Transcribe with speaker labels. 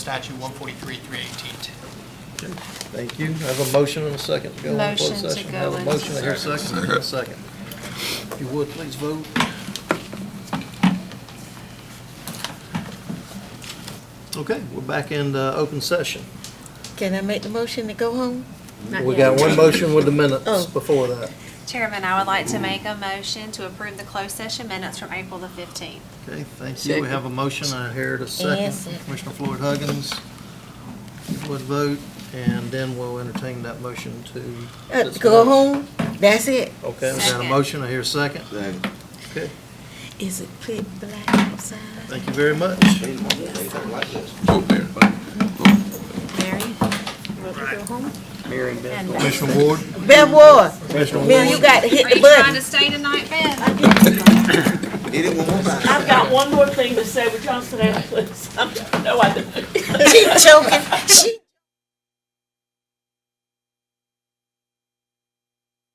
Speaker 1: Statute 143, 318.
Speaker 2: Thank you. I have a motion and a second to go into closed
Speaker 3: Motion to
Speaker 2: session.
Speaker 3: go
Speaker 2: I have a
Speaker 3: into-
Speaker 2: motion, I hear a second, I hear a second. If you would, please vote. Okay, we're back in uh, open session.
Speaker 3: Can I make the motion to go home?
Speaker 4: Not
Speaker 2: We
Speaker 4: yet.
Speaker 2: got one motion with the minutes
Speaker 3: Oh.
Speaker 2: before that.
Speaker 4: Chairman, I would like to make a motion to approve the closed session minutes from April the 15th.
Speaker 2: Okay, thank you. We have a motion, I hear it a
Speaker 3: Yes,
Speaker 2: second.
Speaker 3: sir.
Speaker 2: Commissioner Floyd Huggins if you would vote, and then we'll entertain that motion to.
Speaker 3: Uh, Go home? That's it?
Speaker 2: Okay, we got a
Speaker 4: Second.
Speaker 2: motion, I hear a second. Okay,
Speaker 3: Is it pitch black outside?
Speaker 2: thank you very much.
Speaker 3: Mary? Want to go home?
Speaker 2: Commissioner Ward?
Speaker 3: Bev Ward, Mary, you got to hit
Speaker 4: Are
Speaker 3: the
Speaker 4: you trying to
Speaker 3: button.
Speaker 4: stay tonight, Ben?
Speaker 5: I've got one more thing to say, would y'all sit down, please? I'm- No, I don't.
Speaker 3: She choking, she.